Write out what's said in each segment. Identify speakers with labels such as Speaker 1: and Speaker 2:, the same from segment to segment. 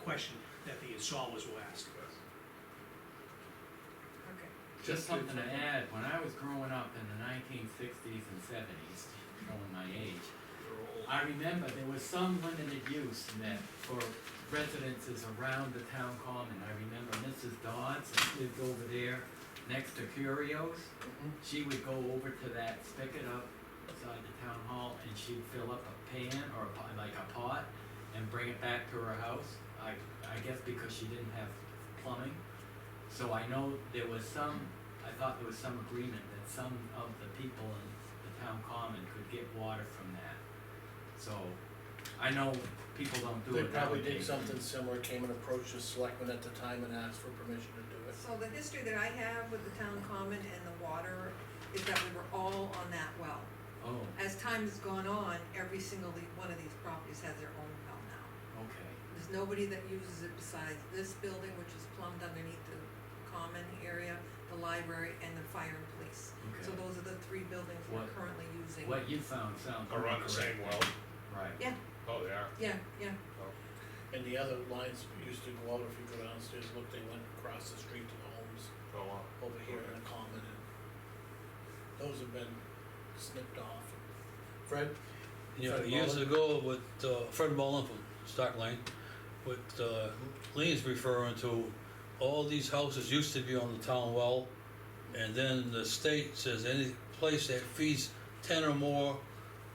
Speaker 1: question that the installers will ask.
Speaker 2: okay.
Speaker 3: Just
Speaker 4: Just
Speaker 3: something to
Speaker 4: to-
Speaker 3: add, when I was growing up in the nineteen sixties and seventies, showing my age, I remember there was some limited use meant for residences around the town common. I remember Mrs. Dodds that lived over there next to Curios. She would go over to that spigot up beside the town hall and she'd fill up a pan or a pot, like a pot and bring it back to her house. I, I guess because she didn't have plumbing. So I know there was some, I thought there was some agreement that some of the people in the town common could get water from that. So, I know people don't do
Speaker 4: They
Speaker 3: it
Speaker 4: probably did
Speaker 3: nowadays.
Speaker 4: something similar, came and approached the selectmen at the time and asked for permission to do it.
Speaker 2: So the history that I have with the town common and the water is that we were all on that well.
Speaker 3: Oh,
Speaker 2: As time has gone on, every single le- one of these properties has their own well now.
Speaker 3: okay,
Speaker 2: There's nobody that uses it besides this building, which is plumbed underneath the common area, the library, and the fire and police. So
Speaker 3: okay.
Speaker 2: those are the three buildings we're
Speaker 3: What-
Speaker 2: currently using.
Speaker 3: What you found sounds
Speaker 5: Are on the
Speaker 3: correct.
Speaker 5: same well?
Speaker 3: Right.
Speaker 5: Oh, they are.
Speaker 2: Yeah, yeah,
Speaker 4: And the other lines used to go out, if you go downstairs, look, they went across the street to the homes
Speaker 5: Oh, wow.
Speaker 4: over here in the common and those have been snipped off. Fred?
Speaker 6: Yeah,
Speaker 4: Fred
Speaker 6: years
Speaker 4: Mullin?
Speaker 6: ago with uh, Fred Mullen from Stock Lane, with uh, Lean's referring to, all these houses used to be on the town well, and then the state says any place that feeds ten or more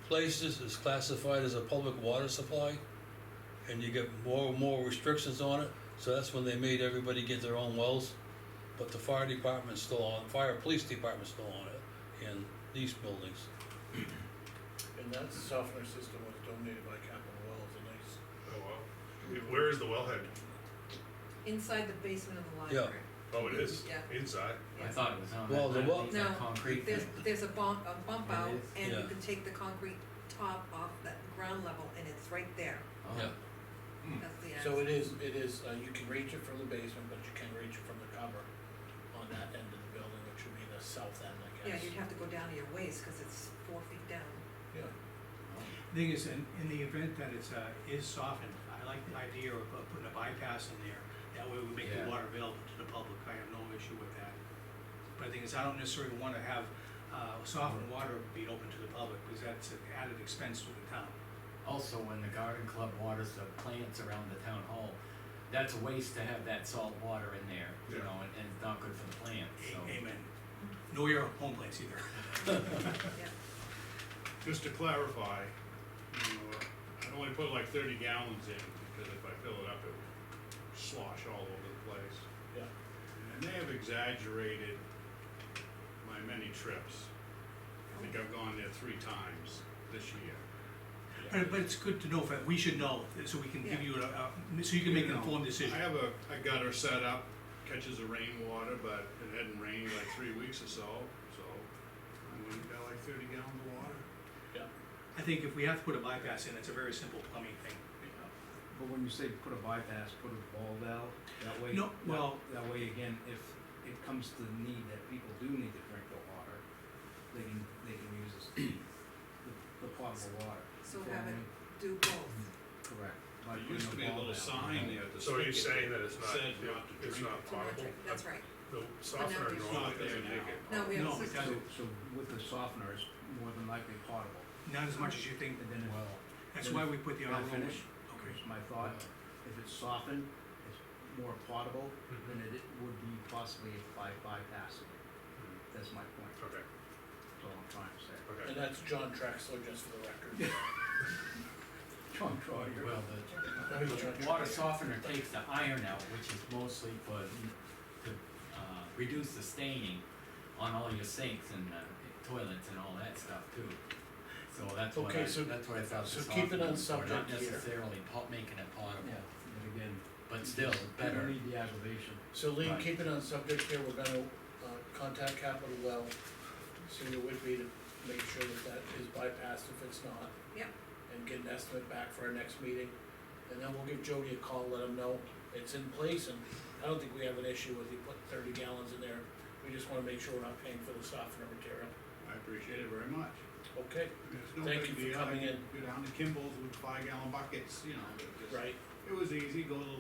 Speaker 6: places is classified as a public water supply, and you get more and more restrictions on it, so that's when they made everybody get their own wells. But the fire department's still on, fire police department's still on it in these buildings.
Speaker 4: And that softener system was donated by Capital Well, it's a nice,
Speaker 5: Oh, wow. Where is the wellhead?
Speaker 2: inside the basement of the
Speaker 6: Yeah.
Speaker 2: library.
Speaker 5: Oh, it is?
Speaker 2: Yeah.
Speaker 5: Inside?
Speaker 3: I thought it was on
Speaker 6: Well, the
Speaker 3: that,
Speaker 6: well-
Speaker 3: that, that
Speaker 2: No,
Speaker 3: concrete
Speaker 2: There's,
Speaker 3: thing.
Speaker 2: there's a bump, a bump
Speaker 3: It
Speaker 2: out,
Speaker 3: is?
Speaker 2: and you
Speaker 6: Yeah.
Speaker 2: can take the concrete top off that ground level, and it's right there,
Speaker 3: Oh,
Speaker 6: Yeah.
Speaker 2: that's the.
Speaker 4: so
Speaker 2: access.
Speaker 4: it is, it is, uh, you can reach it from the basement, but you can reach it from the cover on that end of the building, which would be the south end, I
Speaker 2: Yeah,
Speaker 4: guess.
Speaker 2: you'd have to go down to your waist, cause it's four feet down.
Speaker 4: Yeah.
Speaker 1: Thing is, in, in the event that it's, uh, is softened, I like the idea of uh, putting a bypass in there. That way we make
Speaker 3: Yeah.
Speaker 1: the water available to the public, I have no issue with that. But the thing is, I don't necessarily wanna have, uh, softened water be open to the public, because that's an added expense to the town.
Speaker 3: Also, when the garden club waters the plants around the town hall, that's a waste to have that salt water in there, you
Speaker 5: Yeah.
Speaker 3: know, and, and it's not good for the plants,
Speaker 1: A-
Speaker 3: so.
Speaker 1: Amen. Know your home place either.
Speaker 5: Just to clarify, you know, uh, I'd only put like thirty gallons in, because if I fill it up, it would slosh all over the place.
Speaker 4: Yeah.
Speaker 5: And they have exaggerated my many trips. I think I've gone there three times this year.
Speaker 1: But, but it's good to know, that we should know, so we can give you a, a- so you can make an
Speaker 5: You know,
Speaker 1: informed decision.
Speaker 5: I have a, a gutter set up, catches the rainwater, but it hadn't rained like three weeks or so, so I went and got like thirty gallons of water.
Speaker 1: I think if we have to put a bypass in, it's a very simple plumbing thing.
Speaker 7: But when you say put a bypass, put a ball valve, that way.
Speaker 1: No, well-
Speaker 7: That that way, again, if it comes to the need that people do need to drink the water, they can, they can use this, the the potable water.
Speaker 2: So
Speaker 7: For
Speaker 2: have it
Speaker 7: only-
Speaker 2: do both,
Speaker 7: Correct. by
Speaker 5: There
Speaker 7: putting
Speaker 5: used to be a
Speaker 7: ball
Speaker 5: little
Speaker 7: valve.
Speaker 5: sign there that.
Speaker 8: So are you
Speaker 5: said-
Speaker 8: saying that it's not,
Speaker 5: Said not to
Speaker 8: it's
Speaker 5: drink
Speaker 8: not
Speaker 2: it's not
Speaker 8: potable?
Speaker 2: drink- that's right,
Speaker 8: The softener
Speaker 2: it's
Speaker 8: normally
Speaker 5: not there
Speaker 8: doesn't make
Speaker 5: now.
Speaker 8: it.
Speaker 2: no, we have a
Speaker 1: No, it
Speaker 2: system.
Speaker 7: So,
Speaker 1: doesn't.
Speaker 7: so with the softener, it's more than likely potable,
Speaker 1: Not as much as you think,
Speaker 7: and then if,
Speaker 3: Well,
Speaker 1: that's why we put the
Speaker 7: Can I
Speaker 1: envelope.
Speaker 7: finish?
Speaker 1: Okay,
Speaker 7: here's my thought, if it's softened, it's more potable
Speaker 5: Mm-hmm.
Speaker 7: than it would be possibly by bypassing it.
Speaker 5: Mm-hmm.
Speaker 7: That's my point,
Speaker 8: Okay,
Speaker 7: that's all I'm trying to say.
Speaker 8: okay.
Speaker 4: And that's John Trexler, just for the record.
Speaker 7: John Troyer.
Speaker 3: well,
Speaker 4: That
Speaker 3: the,
Speaker 4: was John
Speaker 3: water
Speaker 4: Trexler.
Speaker 3: softener takes the iron out, which is mostly for, to, uh, reduce the staining on all your sinks and, uh, toilets and all that stuff too. So that's what I,
Speaker 4: Okay, so-
Speaker 3: that's what I thought the
Speaker 4: so keep it on
Speaker 3: softener was for, not
Speaker 4: subject here.
Speaker 3: necessarily pot, making it potable,
Speaker 7: Yeah, and again,
Speaker 3: but still
Speaker 7: you don't
Speaker 3: better.
Speaker 7: need the aggravation.
Speaker 4: So Lean,
Speaker 3: Right.
Speaker 4: keeping on subject here, we're gonna, uh, contact Capital Well, see what it would be to make sure that that is bypassed if it's not.
Speaker 2: Yep.
Speaker 4: And get an estimate back for our next meeting, and then we'll give Jody a call, let him know it's in place, and I don't think we have an issue with you putting thirty gallons in there. We just wanna make sure we're not paying for the softener material,
Speaker 5: I appreciate it very much.
Speaker 4: okay?
Speaker 5: It's no
Speaker 4: Thank
Speaker 5: big
Speaker 4: you for
Speaker 5: deal. I
Speaker 4: coming
Speaker 5: could
Speaker 4: in.
Speaker 5: Go down to Kimball's with five gallon buckets, you know, it just-
Speaker 4: Right.
Speaker 5: it was easy, go to the